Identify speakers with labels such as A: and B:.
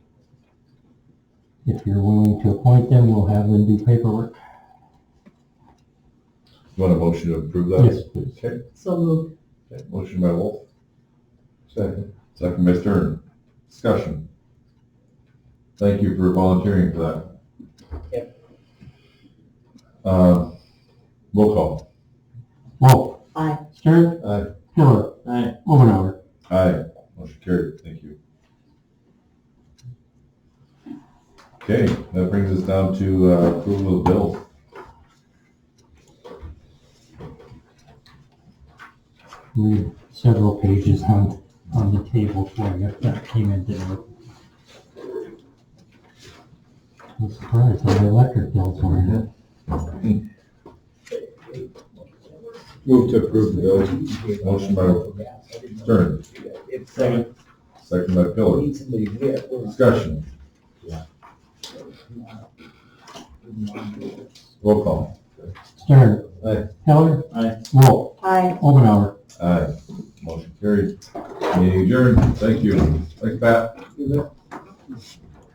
A: If you're willing to appoint them, we'll have them do paperwork.
B: You want a motion to approve that?
A: Yes, please.
B: Okay,
C: So moved.
B: okay, motion by Wolf. Second. Second by Stern. Discussion. Thank you for volunteering for that. Yep. Uh, roll call.
A: Wolf.
C: Aye.
A: Stern.
B: Aye.
A: Pillar.
D: Aye.
A: Omenauer.
B: Aye, motion carried, thank you. Okay, that brings us down to uh, approval of bills.
A: We have several pages on, on the table for you that came in today. I'm surprised how the electric bills were in.
B: Move to approve the bills. Motion by Stern,
D: It's like,
B: second by Pillar.
D: need somebody here.
B: Discussion, roll call.
A: Stern.
B: Aye.
A: Pillar.
D: Aye.
A: Wolf.
C: Aye.
A: Omenauer.
B: Aye, motion carried. Meeting adjourned, thank you. Thanks, Pat.